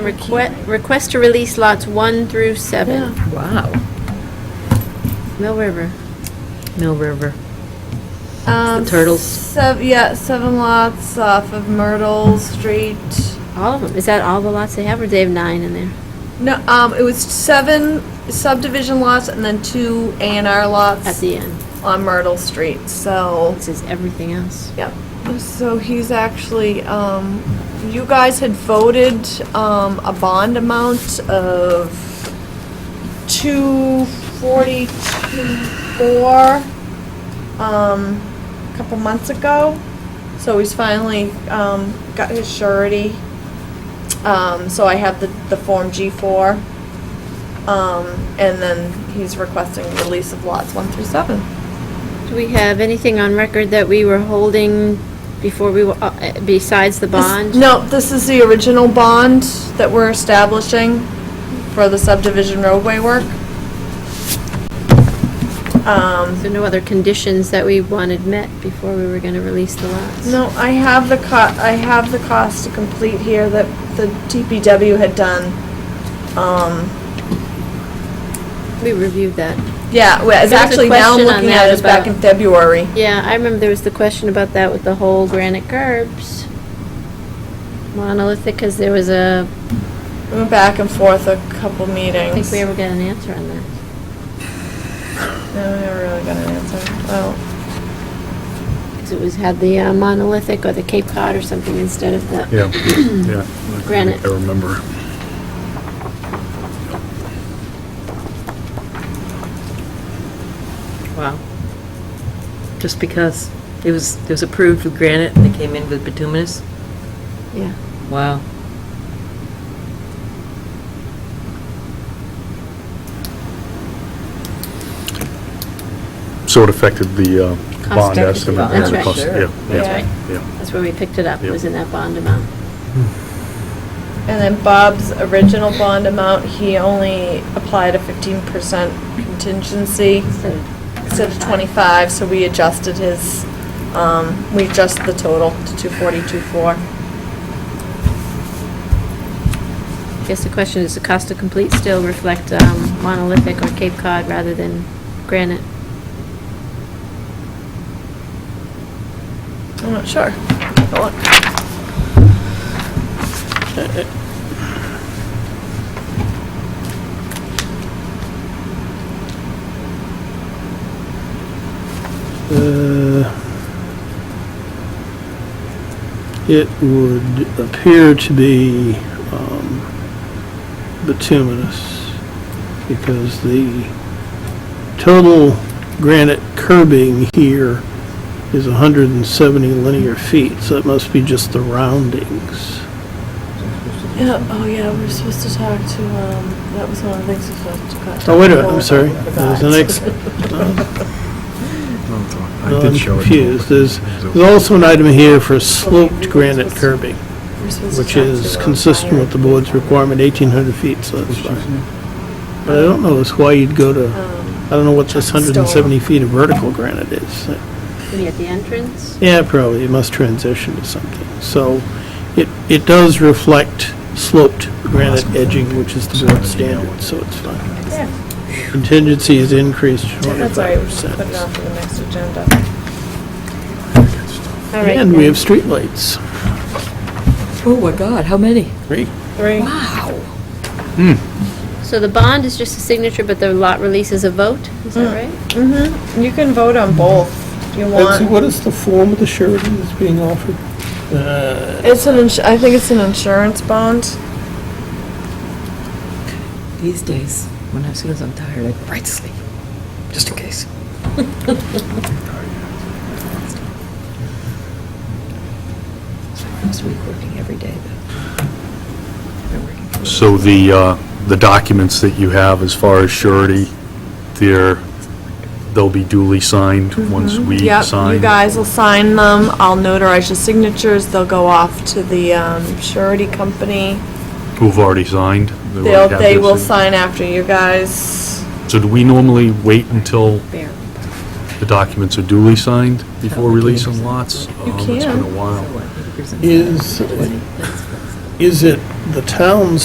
Requ- Request to release lots 1 through 7, Wow, Mill River. Mill River. Um, The turtles. Sev- yeah, seven lots off of Myrtle Street. All of them, is that all the lots they have, or do they have nine in there? No, um, it was seven subdivision lots and then two A and R At lots the end, on Myrtle Street. So, it says everything else. yeah. So he's actually, um, you guys had voted um, a bond amount of two forty two four um, a couple months ago. So he's finally um, got his surety. Um, so I have the, the Form G4. Um, and then he's requesting release of lots 1 through 7. Do we have anything on record that we were holding before we, were- uh, uh, besides the This- bond? No, this is the original bond that we're establishing for the subdivision roadway work. Um, So no other conditions that we wanted met before we were going to release the lots? no, I have the co, I have the cost to complete here that the DPW had done. Um, We reviewed that. yeah, well, There was it's a actually, now I'm question on looking that at it, it's back about- in February. Yeah, I remember there was the question about that with the whole granite curbs, monolithic, because there was a, We went back and forth a couple I meetings. think we ever got an answer on that. No, we never really got an answer. Well, Because it was, had the uh, monolithic or the Cape Cod or something instead of the, Yeah, yeah. Granite. I remember. Wow. Just because it was, it was approved with granite and they came in with bituminous? yeah. Wow. So it affected the uh, Cost bond of- estimate. That's and the right. cost- Sure. yeah, That's yeah, right. yeah. That's where we picked it up, Yep. was in that bond amount. And then Bob's original bond amount, he only applied a fifteen percent contingency instead of- instead of twenty-five, so we adjusted his, um, we adjusted the total to two forty-two four. I guess the question is, the cost to complete still reflect um, monolithic or Cape Cod rather than granite? I'm not sure. Take a look. Uh, It would appear to be um, bituminous because the total granite curbing here is 170 linear feet, so it must be just the roundings. Yeah, oh yeah, we were supposed to talk to, um, that was one of the things we were supposed to talk to. Oh, wait a minute, I'm sorry. There's the next, I I'm confused. There's there's also an item here for sloped granite curbing, We were supposed to which talk to, is um, consistent with the board's requirement, 1,800 feet, so that's fine. But I don't know is why you'd go to, Um, I don't know what this Chuck Stoll. 170 feet of vertical granite is. Maybe at the entrance? Yeah, probably, it must transition to something. So it, it does reflect sloped granite edging, which is the board standard, so it's fine. Yeah, Contingency is increased to that's all right, we should put it 25%. on for the next agenda. All right. And we then. have streetlights. Oh my God, how many? Great. Three, Wow. So the bond is just a signature, but the lot release is a vote, is that right? mm-hmm, you can vote on both, if you want. What is the form of the surety that's being offered? It's an, ins- I think it's an insurance bond. These days, when as soon as I'm tired, I go right to sleep, just in case. It's my first week working every day, though. I've been working for- So the, uh, the documents that you have as far as surety, they're, they'll be duly signed once we Mm-hmm. Yep, sign. you guys will sign them. I'll notarize your signatures. They'll go off to the um, surety company. Who've already signed. They They'll, already have they their will sig- sign after you guys. So do we normally wait until Fair. the documents are duly signed before Oh, releasing 80%. lots? You Um, It's been can. a So while. what, 80%? Is- That's- that's- Is it the town's